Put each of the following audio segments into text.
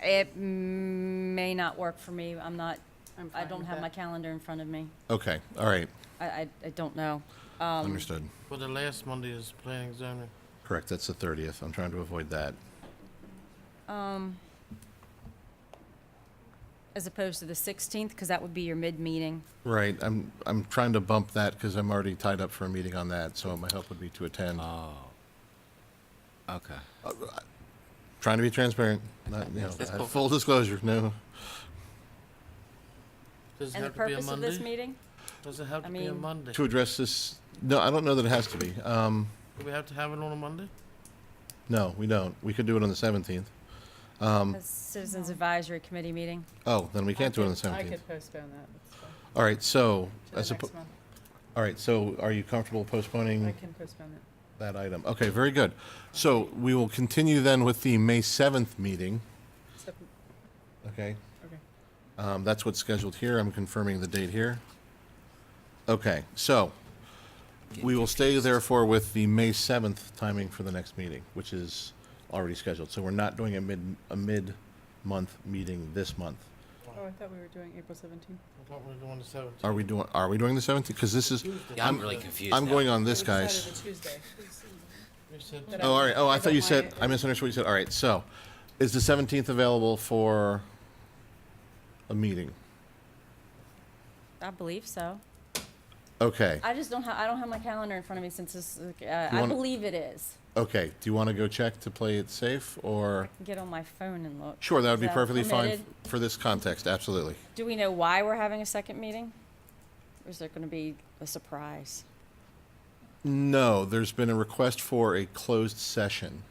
It may not work for me. I'm not, I'm I fine don't with have that. my calendar in front of me. Okay, all right, I, I, I don't know. Um, understood. Well, the last Monday is planning zoning. Correct, that's the 30th. I'm trying to avoid that. As opposed to the 16th, because that would be your mid-meeting. Right, I'm, I'm trying to bump that because I'm already tied up for a meeting on that, so my help would be to attend. Oh, Uh, Okay. Trying to be transparent, not, you know, uh, full disclosure, no. Does it And the have to be a purpose of this Monday? meeting? Does it have I to be a mean- Monday? To address this, no, I don't know that it has to be. Um, Do we have to have it on a Monday? No, we don't. We could do it on the 17th. Um, The Citizens Advisory Committee meeting? Oh, then we I can't do it on the could- I 17th. could postpone that. That's fine. All right, so, To the I next suppo- Mm. month. all right, so are you comfortable I postponing can postpone it. that item? Okay, very good. So we will continue then with the May 7th meeting, Except- okay? Okay. Um, That's what's scheduled here. I'm confirming the date here. Okay, so we will stay therefore with the May 7th timing for the next meeting, which is already scheduled. So we're not doing a mid, a mid-month meeting this month. Oh, I thought we were doing April 17th. I thought we were doing the seventeenth. Are we doing, are we doing the 17th? Because this is, Yeah, I'm really confused I'm now. going on this, We decided guys. a Tuesday. We said But I- Oh, all right. Oh, I I thought don't you want said, it. I misunderstood what you said. All right, so is the 17th available for a meeting? I believe so. Okay, I just don't have, I don't have my calendar in front of me since this, uh, You I wanna- believe it is. okay. Do you want to go check to play it safe or? Get on my phone and look. Sure, that would Is be perfectly fine f- permitted? for this context, absolutely. Do we know why we're having a second meeting? Or is there going to be a surprise? No, there's been a request for a closed session.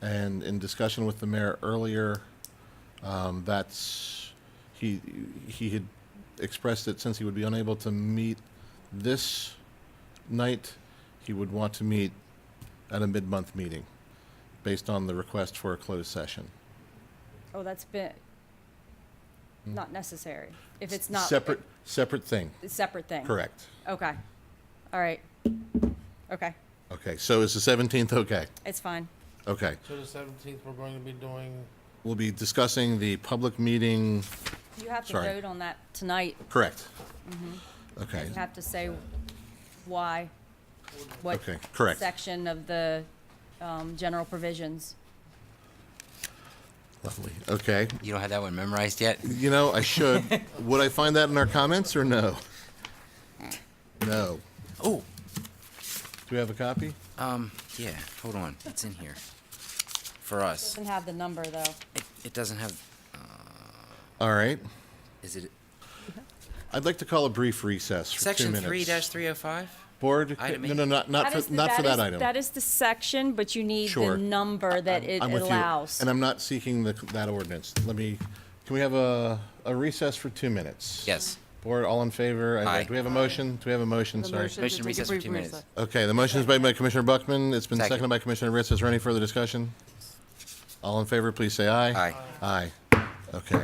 And in discussion with the mayor earlier, um, that's, he, he had expressed that since he would be unable to meet this night, he would want to meet at a mid-month meeting, based on the request for a closed session. Oh, that's been, not necessary. If it's not. Separate, separate thing, a Separate thing. correct. Okay. All right. Okay. Okay, so is the 17th okay? It's fine. Okay. So the seventeenth, we're going to be doing, We'll be discussing the public meeting, You have to Sorry. vote on that tonight. correct? Okay, You have to say why, what okay, correct. section of the um, general provisions. Lovely, okay. You don't have that one memorized yet? You know, I should, would I find that in our comments or no? Eh. No. Oh, Do we have a copy? um, yeah, hold on. It's in here. For us. Doesn't have the number, though. It, it doesn't have, All right. is it I'd like to call a brief recess for two section minutes. three dash three oh five? Board, Item no, eight. no, not, not for, not for that item. That is the section, but you need the Sure. number that it I'm with you, allows. And I'm not seeking the, that ordinance. Let me, can we have a, a recess for two minutes? Yes. Board, all in favor? I- Aye. Do we have a motion? Do we have a motion? Sorry. Motion recess for two minutes. Okay, the motion is made by Commissioner Buckman. It's been Second. seconded by Commissioner Ritz. Is there any further discussion? All in favor, please say aye. Aye. Aye. Okay.